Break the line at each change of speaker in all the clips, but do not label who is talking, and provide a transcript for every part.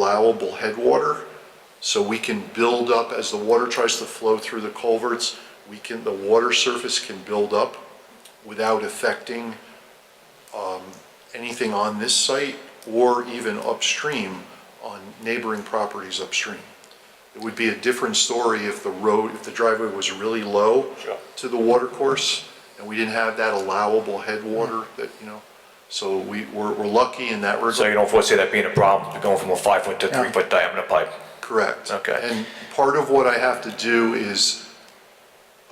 allowable headwater. So we can build up, as the water tries to flow through the culverts, we can, the water surface can build up without affecting um, anything on this site or even upstream on neighboring properties upstream. It would be a different story if the road, if the driveway was really low
Sure.
to the water course, and we didn't have that allowable headwater that, you know, so we, we're, we're lucky in that
So
regard.
you don't foresee that being a problem, going from a five-foot to
Yeah.
three-foot diameter pipe?
Correct.
Okay.
And part of what I have to do is,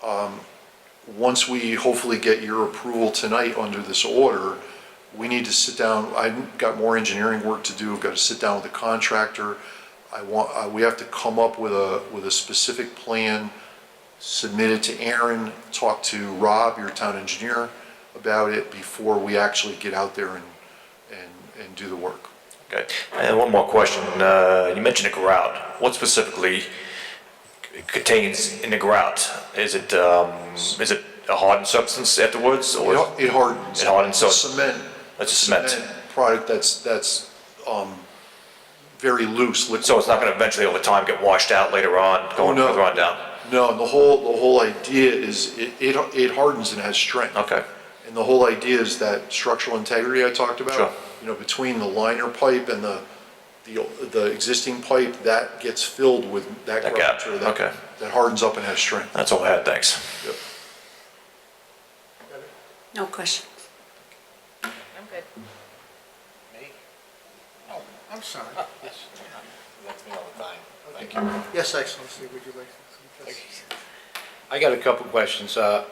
um, once we hopefully get your approval tonight under this order, we need to sit down, I've got more engineering work to do, I've got to sit down with the contractor. I want, uh, we have to come up with a, with a specific plan, submit it to Aaron, talk to Rob, your town engineer, about it before we actually get out there and, and, and do the work.
Okay. And one more question. Uh, You mentioned a grout. What specifically c- contains in the grout? Is it, um, is it a hardened substance afterwards or?
It it hardens.
It hardens, so it's-
Cement.
It's a cement.
Product that's, that's, um, very loose, liquid.
So it's not going to eventually over time get washed out later on, going
no.
further on down?
No, the whole, the whole idea is it, it it hardens and has strength.
Okay.
And the whole idea is that structural integrity I talked about.
Sure.
You know, between the liner pipe and the, the, the existing pipe, that gets filled with that.
That gap,
curvature
okay.
That hardens up and has strength.
That's all I had, thanks.
Yep.
No question.
I'm good.
Oh, I'm sorry. Yes.
That's me all the time. Thank you.
Yes, Excellency, would you like to? yes.
I got a couple questions. Uh,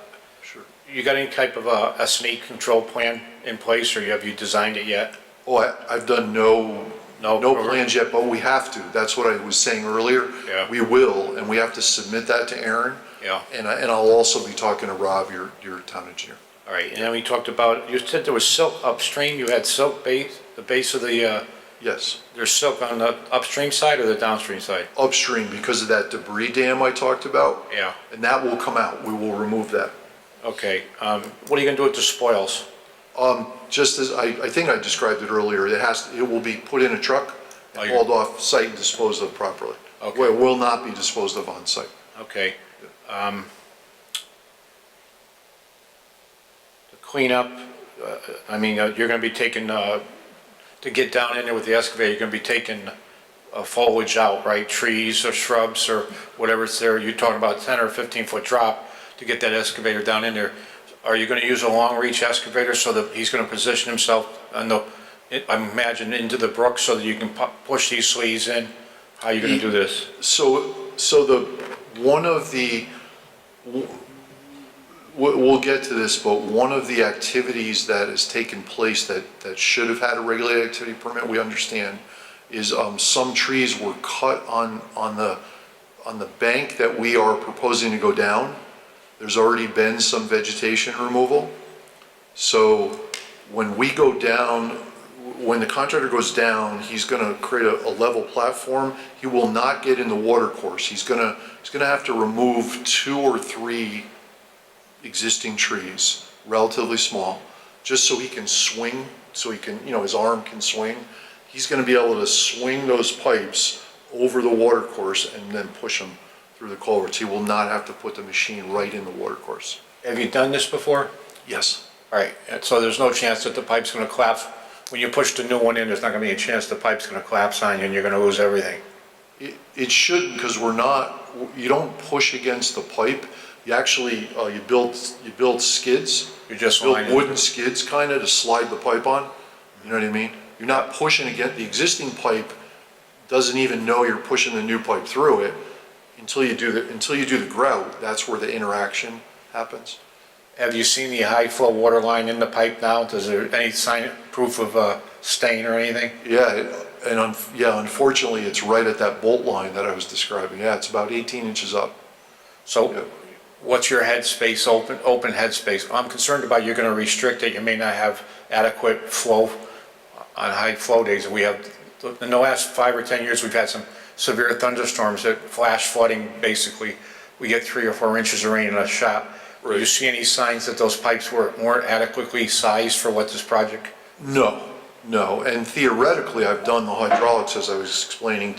Sure.
You got any type of a a snake control plan in place, or have you designed it yet?
Oh, I, I've done no,
No.
no plans yet, but we have to. That's what I was saying earlier.
Yeah.
We will, and we have to submit that to Aaron.
Yeah.
And I, and I'll also be talking to Rob, your, your town engineer.
All right, and then we talked about, you said there was silk upstream, you had silk base, the base of the, uh,
Yes,
there's silk on the upstream side or the downstream side?
upstream because of that debris dam I talked about.
Yeah.
And that will come out. We will remove that.
Okay, um, what are you gonna do with the spoils?
Um, just as, I, I think I described it earlier, it has, it will be put in a truck
Oh,
and
you're-
hauled off site and disposed of properly.
Okay.
Where it will not be disposed of on site.
Okay. um, The cleanup, uh, I mean, uh, you're gonna be taking, uh, to get down in there with the excavator, you're gonna be taking uh, foliage out, right? Trees or shrubs or whatever's there. You're talking about 10 or 15-foot drop to get that excavator down in there. Are you gonna use a long-reach excavator so that he's gonna position himself on the, I imagine into the brook so that you can pu- push these sleeves in? How are you gonna do this?
So, so the, one of the, we'll, we'll get to this, but one of the activities that has taken place that, that should have had a regulated activity permit, we understand, is, um, some trees were cut on, on the, on the bank that we are proposing to go down. There's already been some vegetation removal. So when we go down, when the contractor goes down, he's gonna create a, a level platform. He will not get in the water course. He's gonna, he's gonna have to remove two or three existing trees, relatively small, just so he can swing, so he can, you know, his arm can swing. He's gonna be able to swing those pipes over the water course and then push them through the culverts. He will not have to put the machine right in the water course.
Have you done this before?
Yes?
All right, and so there's no chance that the pipe's gonna collapse? When you push the new one in, there's not gonna be a chance the pipe's gonna collapse on you and you're gonna lose everything?
It, it shouldn't, because we're not, you don't push against the pipe. You actually, uh, you build, you build skids.
You're just
Build
lining-
wooden skids kind of to slide the pipe on. You know what I mean? You're not pushing against, the existing pipe doesn't even know you're pushing the new pipe through it until you do the, until you do the grout. That's where the interaction happens.
Have you seen the high flow water line in the pipe now? Does there any sign, proof of uh, stain or anything?
Yeah, it- and un, yeah, unfortunately, it's right at that bolt line that I was describing. Yeah, it's about 18 inches up. Yeah.
So what's your headspace, open, open headspace? I'm concerned about you're gonna restrict it, you may not have adequate flow uh, on high flow days. We have, in the last five or 10 years, we've had some severe thunderstorms that flash flooding, basically. We get three or four inches of rain in a shot. Do you see any signs that those pipes were, weren't adequately sized for what this project?
No, No, and theoretically, I've done the hydraulics, as I was explaining